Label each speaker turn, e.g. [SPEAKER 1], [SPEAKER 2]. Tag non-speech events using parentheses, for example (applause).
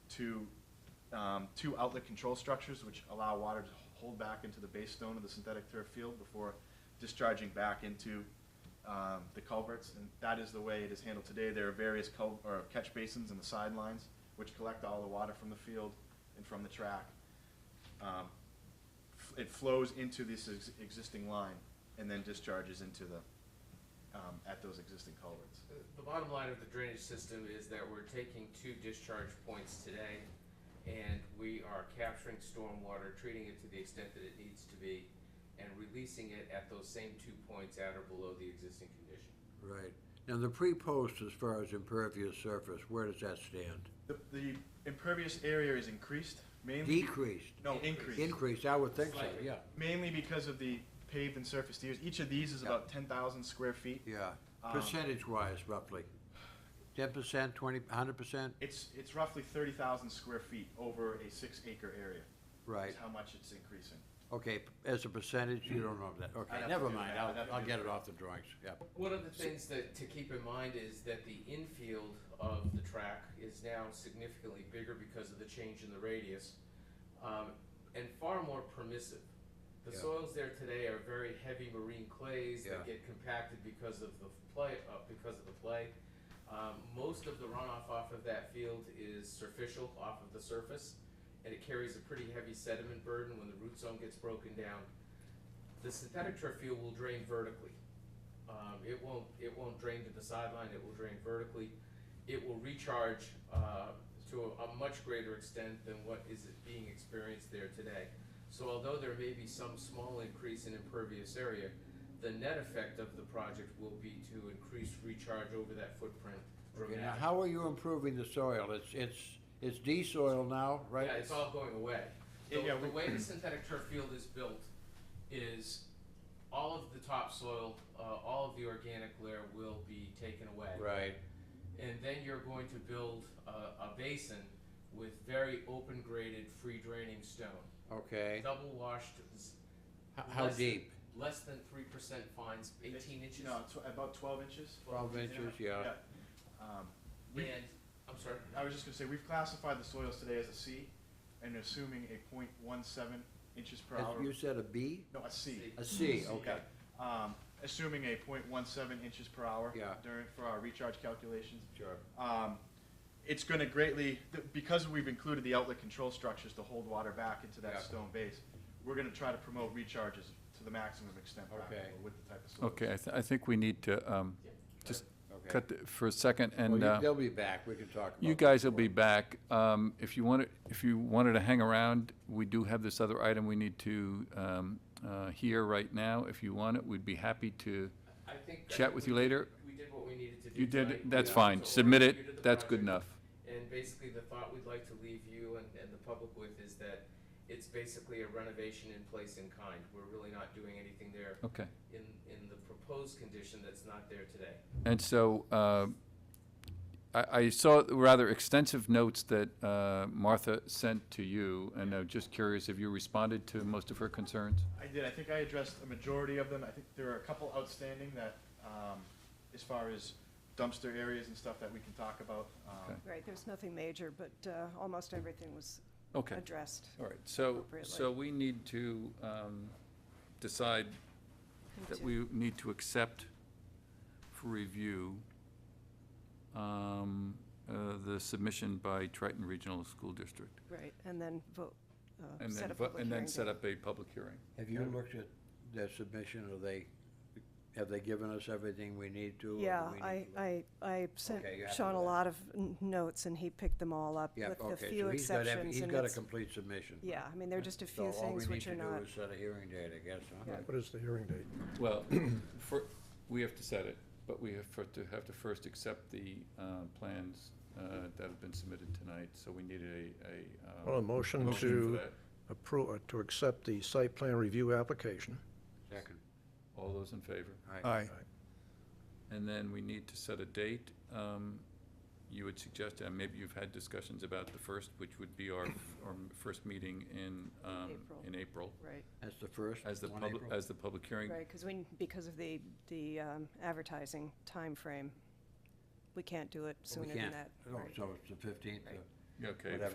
[SPEAKER 1] to um, two outlet control structures, which allow water to hold back into the base stone of the synthetic turf field before discharging back into um, the culverts, and that is the way it is handled today. There are various cul, or catch basins in the sidelines, which collect all the water from the field and from the track. Um, f- It flows into this ex- existing line and then discharges into the, um, at those existing culverts.
[SPEAKER 2] The bottom line of the drainage system is that we're taking two discharge points today, and we are capturing stormwater, treating it to the extent that it needs to be, and releasing it at those same two points at or below the existing condition.
[SPEAKER 3] Right. Now, the pre-post as far as impervious surface, where does that stand?
[SPEAKER 1] The, the impervious area is increased mainly,
[SPEAKER 3] Decreased,
[SPEAKER 1] no, increased,
[SPEAKER 3] increased, I would think so,
[SPEAKER 2] Slightly.
[SPEAKER 3] yeah.
[SPEAKER 1] mainly because of the paved and surfaced areas. Each of these is about ten thousand square feet.
[SPEAKER 3] Yeah,
[SPEAKER 1] Um,
[SPEAKER 3] percentage-wise roughly? Ten percent, twenty, hundred percent?
[SPEAKER 1] It's, it's roughly thirty thousand square feet over a six acre area.
[SPEAKER 3] Right,
[SPEAKER 1] Is how much it's increasing.
[SPEAKER 3] okay, p- as a percentage, you don't know that,
[SPEAKER 1] I'd
[SPEAKER 3] okay,
[SPEAKER 1] have
[SPEAKER 3] never
[SPEAKER 1] to do
[SPEAKER 3] mind,
[SPEAKER 1] that. I'd have
[SPEAKER 3] I'll,
[SPEAKER 1] to
[SPEAKER 3] I'll
[SPEAKER 1] do
[SPEAKER 3] get
[SPEAKER 1] that.
[SPEAKER 3] it off the drawings, yeah.
[SPEAKER 2] One of the things that, to keep in mind is that the infield of the track is now significantly bigger because of the change in the radius, um, and far more permissive. The
[SPEAKER 3] Yeah.
[SPEAKER 2] soils there today are very heavy marine clays that
[SPEAKER 3] Yeah.
[SPEAKER 2] get compacted because of the play, uh, because of the play. Um, most of the runoff off of that field is surficial off of the surface, and it carries a pretty heavy sediment burden when the root zone gets broken down. The synthetic turf field will drain vertically. Um, it won't, it won't drain to the sideline, it will drain vertically. It will recharge, uh, to a, a much greater extent than what is being experienced there today. So although there may be some small increase in impervious area, the net effect of the project will be to increase recharge over that footprint
[SPEAKER 3] Okay, now,
[SPEAKER 2] dramatically.
[SPEAKER 3] how are you improving the soil? It's, it's, it's de-soil now, right?
[SPEAKER 2] Yeah, it's all going away. The,
[SPEAKER 1] Yeah, yeah,
[SPEAKER 2] the
[SPEAKER 1] we-
[SPEAKER 3] (clears throat)
[SPEAKER 2] way the synthetic turf field is built is all of the topsoil, uh, all of the organic layer will be taken away.
[SPEAKER 3] Right,
[SPEAKER 2] And then you're going to build a, a basin with very open graded, free draining stone.
[SPEAKER 3] okay.
[SPEAKER 2] Double washed, s-
[SPEAKER 3] H- How
[SPEAKER 2] less-
[SPEAKER 3] deep?
[SPEAKER 2] less than three percent fines, eighteen inches.
[SPEAKER 1] No, tw- about twelve inches.
[SPEAKER 3] Twelve inches, yeah.
[SPEAKER 1] Um,
[SPEAKER 2] And,
[SPEAKER 1] we-
[SPEAKER 2] I'm sorry,
[SPEAKER 1] I was just gonna say, we've classified the soils today as a C, and assuming a point one seven inches per
[SPEAKER 3] As
[SPEAKER 1] hour.
[SPEAKER 3] You said a B?
[SPEAKER 1] No, a C.
[SPEAKER 3] A C,
[SPEAKER 1] C,
[SPEAKER 3] okay.
[SPEAKER 1] yeah. Um, assuming a point one seven inches per hour.
[SPEAKER 3] Yeah.
[SPEAKER 1] During, for our recharge calculations.
[SPEAKER 3] Sure.
[SPEAKER 1] Um, it's gonna greatly, th- because we've included the outlet control structures to hold water back into
[SPEAKER 3] Yeah.
[SPEAKER 1] that stone base, we're gonna try to promote recharges to the maximum extent
[SPEAKER 3] Okay.
[SPEAKER 1] practical with the type of soils.
[SPEAKER 4] Okay, I, th- I think we need to, um, just
[SPEAKER 3] Okay.
[SPEAKER 4] cut th- for a second,
[SPEAKER 3] Well,
[SPEAKER 4] and,
[SPEAKER 3] you-
[SPEAKER 4] uh,
[SPEAKER 3] they'll be back, we can talk about.
[SPEAKER 4] you
[SPEAKER 3] that
[SPEAKER 4] guys will
[SPEAKER 3] more.
[SPEAKER 4] be back. Um, if you want, if you wanted to hang around, we do have this other item we need to, um, uh, hear right now. If you want it, we'd be happy to
[SPEAKER 2] I think. I
[SPEAKER 4] chat
[SPEAKER 2] think
[SPEAKER 4] with
[SPEAKER 2] we-
[SPEAKER 4] you later.
[SPEAKER 2] We did what we needed to do.
[SPEAKER 4] You did,
[SPEAKER 2] tonight.
[SPEAKER 4] that's
[SPEAKER 2] We
[SPEAKER 4] fine.
[SPEAKER 2] also
[SPEAKER 4] Submit
[SPEAKER 2] reviewed the
[SPEAKER 4] it, that's
[SPEAKER 2] project.
[SPEAKER 4] good enough.
[SPEAKER 2] And basically, the thought we'd like to leave you and, and the public with is that it's basically a renovation in place in kind. We're really not doing anything there
[SPEAKER 4] Okay.
[SPEAKER 2] in, in the proposed condition that's not there today.
[SPEAKER 4] And so, uh, I, I saw rather extensive notes that, uh, Martha sent to you, and I'm just curious, have you responded to most of her concerns?
[SPEAKER 1] I did. I think I addressed a majority of them. I think there are a couple outstanding that, um, as far as dumpster areas and stuff that we can talk about. Um,
[SPEAKER 4] Okay.
[SPEAKER 5] Right, there's nothing major, but uh, almost everything was
[SPEAKER 4] Okay.
[SPEAKER 5] addressed.
[SPEAKER 4] All right, so,
[SPEAKER 5] appropriately.
[SPEAKER 4] so we need to um, decide that
[SPEAKER 5] Into-
[SPEAKER 4] we need to accept for review um, uh, the submission by Triton Regional School District.
[SPEAKER 5] Right, and then vote, uh,
[SPEAKER 4] And
[SPEAKER 5] set
[SPEAKER 4] then,
[SPEAKER 5] a
[SPEAKER 4] vo-
[SPEAKER 5] public
[SPEAKER 4] and then
[SPEAKER 5] hearing
[SPEAKER 4] set
[SPEAKER 5] date.
[SPEAKER 4] up a public hearing.
[SPEAKER 3] Have you looked at their submission, are they, have they given us everything we need to? or do
[SPEAKER 5] Yeah,
[SPEAKER 3] we need
[SPEAKER 5] I,
[SPEAKER 3] to look?
[SPEAKER 5] I, I sent
[SPEAKER 3] Okay, you happy
[SPEAKER 5] Sean
[SPEAKER 3] with
[SPEAKER 5] a
[SPEAKER 3] that?
[SPEAKER 5] lot of n- notes, and he picked them all up
[SPEAKER 3] Yeah,
[SPEAKER 5] with the
[SPEAKER 3] okay,
[SPEAKER 5] few
[SPEAKER 3] so he's got,
[SPEAKER 5] exceptions.
[SPEAKER 3] every- he's
[SPEAKER 5] and
[SPEAKER 3] got a
[SPEAKER 5] it's-
[SPEAKER 3] complete submission.
[SPEAKER 5] Yeah, I mean, there are just a few things which are
[SPEAKER 3] So all we
[SPEAKER 5] not,
[SPEAKER 3] need to do is set a hearing date, I guess, huh?
[SPEAKER 5] Yeah.
[SPEAKER 6] What is the hearing date?
[SPEAKER 4] Well, for, we have to set it, but we have for- to, have to first accept the uh, plans uh, that have been submitted tonight, so we need a, a.
[SPEAKER 6] Well, a
[SPEAKER 4] um,
[SPEAKER 6] motion
[SPEAKER 4] for
[SPEAKER 6] to
[SPEAKER 4] that.
[SPEAKER 6] approve, uh, to accept the site plan review application.
[SPEAKER 3] Second,
[SPEAKER 4] All those in favor?
[SPEAKER 3] all right.
[SPEAKER 4] And then we need to set a date. Um, You had suggested, and maybe you've had discussions about the first, which would be our, our first meeting in, um,
[SPEAKER 5] April.
[SPEAKER 4] in April,
[SPEAKER 5] right,
[SPEAKER 3] That's the first,
[SPEAKER 4] as the
[SPEAKER 3] one
[SPEAKER 4] public,
[SPEAKER 3] April?
[SPEAKER 4] as the public hearing.
[SPEAKER 5] right, because we, because of the, the um, advertising timeframe, we can't do it
[SPEAKER 3] We
[SPEAKER 5] sooner than
[SPEAKER 3] can't.
[SPEAKER 5] that.
[SPEAKER 3] Oh,
[SPEAKER 5] right.
[SPEAKER 3] So it's the fifteenth
[SPEAKER 5] Right.
[SPEAKER 4] Okay,
[SPEAKER 3] Whatever.